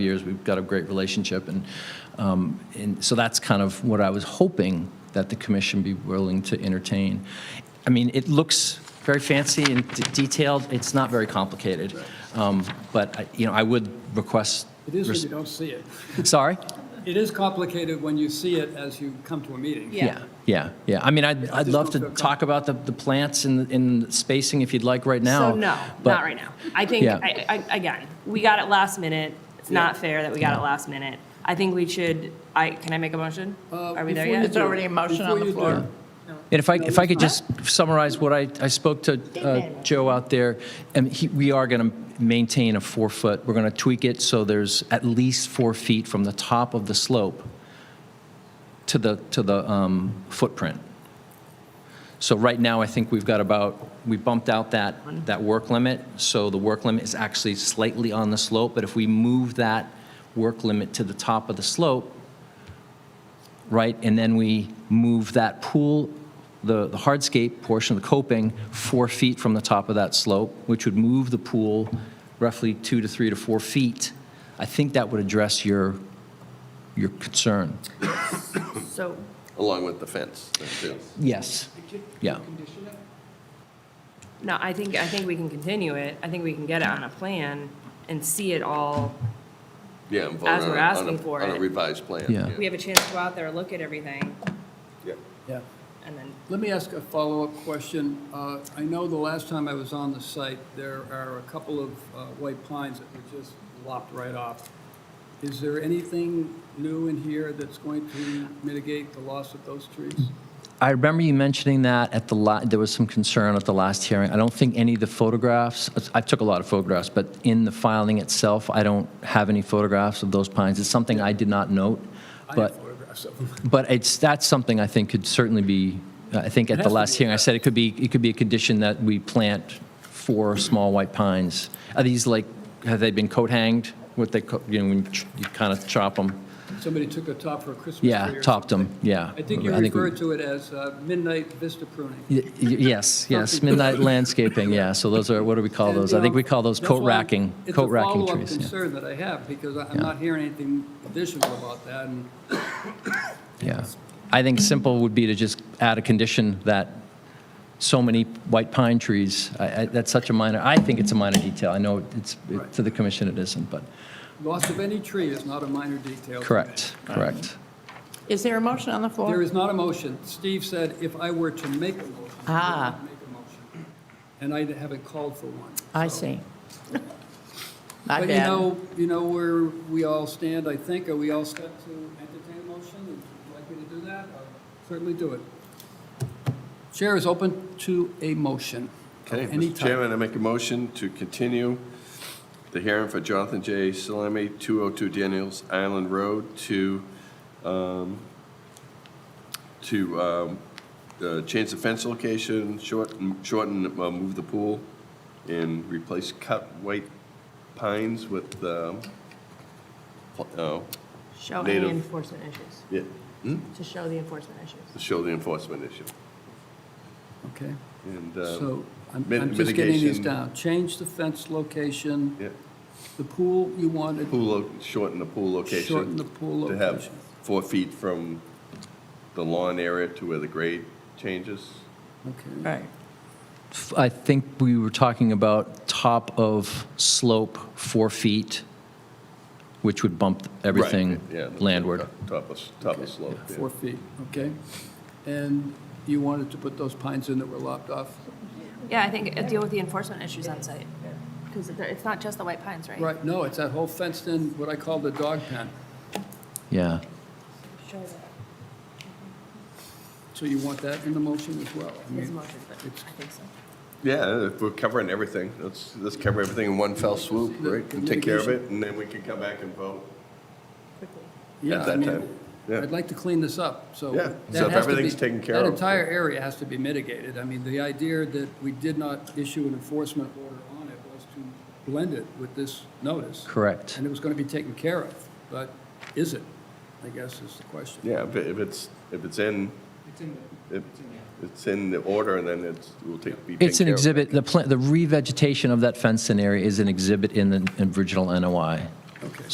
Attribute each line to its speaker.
Speaker 1: years. We've got a great relationship, and, um, and so that's kind of what I was hoping that the commission be willing to entertain. I mean, it looks very fancy and d- detailed. It's not very complicated, um, but I, you know, I would request.
Speaker 2: It is when you don't see it.
Speaker 1: Sorry.
Speaker 2: It is complicated when you see it as you come to a meeting.
Speaker 3: Yeah.
Speaker 1: Yeah. Yeah. yeah. I mean, I'd, I'd
Speaker 2: just
Speaker 1: love
Speaker 2: don't
Speaker 1: to
Speaker 2: feel com-
Speaker 1: talk about the, the plants and, and spacing if you'd like right now.
Speaker 3: So no,
Speaker 1: but-
Speaker 3: not right now. I think,
Speaker 1: Yeah.
Speaker 3: I, I, again, we got it last minute. It's not fair that we got it
Speaker 1: No.
Speaker 3: last minute. I think we should, I, can I make a motion? Are we there
Speaker 2: Uh, before you
Speaker 3: yet?
Speaker 4: It's already a motion on
Speaker 2: Before
Speaker 4: the
Speaker 2: you
Speaker 4: floor.
Speaker 2: do-
Speaker 1: And if I, if I could just summarize what I, I spoke to uh, Joe out there, and he, we are going to maintain a four-foot, we're going to tweak it so there's at least four feet from the top of the slope to the, to the um, footprint. So right now, I think we've got about, we bumped out that, that work limit, so the work limit is actually slightly on the slope, but if we move that work limit to the top of the slope, right? And then we move that pool, the the hardscape portion of the coping, four feet from the top of that slope, which would move the pool roughly two to three to four feet. I think that would address your, your concern.
Speaker 3: So,
Speaker 5: Along with the fence, there, too.
Speaker 1: Yes. Yeah.
Speaker 3: no, I think, I think we can continue it. I think we can get it on a plan and see it all.
Speaker 5: Yeah, and vote
Speaker 3: As
Speaker 5: on
Speaker 3: we're
Speaker 5: a-
Speaker 3: asking
Speaker 5: on a-
Speaker 3: for
Speaker 5: On
Speaker 3: it.
Speaker 5: a revised plan.
Speaker 1: Yeah.
Speaker 3: We have a chance to go out there, look at everything,
Speaker 5: Yeah.
Speaker 2: Yeah.
Speaker 3: and then,
Speaker 2: Let me ask a follow-up question. Uh, I know the last time I was on the site, there are a couple of uh, white pines that were just lopped right off. Is there anything new in here that's going to mitigate the loss of those trees?
Speaker 1: I remember you mentioning that at the, la- there was some concern at the last hearing. I don't think any of the photographs, I took a lot of photographs, but in the filing itself, I don't have any photographs of those pines. It's something I did not note,
Speaker 2: I
Speaker 1: but.
Speaker 2: have photographs of them.
Speaker 1: But it's, that's something I think could certainly be, I think
Speaker 2: It
Speaker 1: at
Speaker 2: has
Speaker 1: the
Speaker 2: to
Speaker 1: last
Speaker 2: be
Speaker 1: hearing, I
Speaker 2: addressed.
Speaker 1: said it could be, it could be a condition that we plant four small white pines. Are these like, have they been coat hanged? What they, co- you know, when you ch- you kind of chop them?
Speaker 2: Somebody took a top for a Christmas tree.
Speaker 1: Yeah,
Speaker 2: or
Speaker 1: topped them, yeah.
Speaker 2: something. I think you
Speaker 1: we-
Speaker 2: referred to it as uh, midnight vista pruning.
Speaker 1: Y- y- Yes, yes, midnight landscaping, yeah. So those are, what do we call
Speaker 2: And,
Speaker 1: those?
Speaker 2: you
Speaker 1: I think
Speaker 2: know,
Speaker 1: we call those
Speaker 2: that's
Speaker 1: coat
Speaker 2: why
Speaker 1: racking, coat racking
Speaker 2: It's
Speaker 1: trees.
Speaker 2: a
Speaker 1: yeah.
Speaker 2: follow-up concern that I have, because I- I'm not hearing anything additional about that, and
Speaker 1: Yeah. I think simple would be to just add a condition that so many white pine trees, I, I, that's such a minor, I think it's a minor detail. I know it's, it- to the commission it isn't, but,
Speaker 2: loss of any tree is not a minor detail. to
Speaker 1: correct, correct.
Speaker 4: Is there a motion on the
Speaker 2: me. There
Speaker 4: floor?
Speaker 2: is not a motion. Steve said if I were to make a motion, I
Speaker 4: Ah.
Speaker 2: would make a motion, and I haven't called for one.
Speaker 4: I
Speaker 2: so.
Speaker 4: see. My
Speaker 2: But you
Speaker 4: bad.
Speaker 2: know, you know where we all stand, I think, are we all set to entertain a motion? Would you like me to do that? I'll Certainly do it. Chair is open to a motion of
Speaker 5: Okay,
Speaker 2: any
Speaker 5: Mr.
Speaker 2: type.
Speaker 5: Chairman, I make a motion to continue the hearing for Jonathan J. Salemi, 202 Daniels Island Road, to, um, to um, uh, change the fence location, shorten, shorten, uh, move the pool, and replace cut white pines with, um, pl- oh,
Speaker 3: show
Speaker 5: any
Speaker 3: any
Speaker 5: Native.
Speaker 3: enforcement issues,
Speaker 5: yeah,
Speaker 3: to show the enforcement issues.
Speaker 5: to show the enforcement issue.
Speaker 2: Okay.
Speaker 5: And, um,
Speaker 2: So I'm
Speaker 5: mit-
Speaker 2: I'm just getting these
Speaker 5: mitigation.
Speaker 2: down. Change the fence location,
Speaker 5: yeah.
Speaker 2: the pool you wanted,
Speaker 5: Pool, lo- shorten the pool location.
Speaker 2: Shorten the pool
Speaker 5: To have
Speaker 2: location.
Speaker 5: four feet from the lawn area to where the grade changes.
Speaker 2: okay.
Speaker 4: Right.
Speaker 1: F- I think we were talking about top of slope, four feet, which would bump everything
Speaker 5: Right, yeah, the
Speaker 1: landward.
Speaker 5: top- Top of, s- top of slope. yeah.
Speaker 2: Four feet, okay? And you wanted to put those pines in that were lopped off?
Speaker 3: Yeah, I think, uh, deal with the enforcement issues on site, because it's not just the white pines, right?
Speaker 2: Right, no, it's that whole fenced-in, what I call the dog pen.
Speaker 1: Yeah.
Speaker 3: Show that.
Speaker 2: So you want that in the motion as well? I
Speaker 3: His
Speaker 2: mean,
Speaker 3: motion, but I think so.
Speaker 5: Yeah, if we're covering everything. Let's, let's cover everything in one fell swoop, right? And take care of it, and then we can come back and vote
Speaker 2: Yeah,
Speaker 5: at
Speaker 2: I
Speaker 5: that
Speaker 2: mean,
Speaker 5: time. Yeah,
Speaker 2: I'd like to clean this up, so.
Speaker 5: Yeah,
Speaker 2: that
Speaker 5: so if
Speaker 2: has to be-
Speaker 5: everything's taken care
Speaker 2: That
Speaker 5: of.
Speaker 2: entire area has to be mitigated. I mean, the idea that we did not issue an enforcement order on it was to blend it with this notice.
Speaker 1: Correct.
Speaker 2: And it was going to be taken care of, but is it, I guess is the question.
Speaker 5: yeah, if it- if it's, if it's in, if it's in the order, then it's, will take, be taken care of.
Speaker 1: It's an exhibit, the pla- the revegetation of that fenced-in area is an exhibit in the original NOI.
Speaker 2: Okay.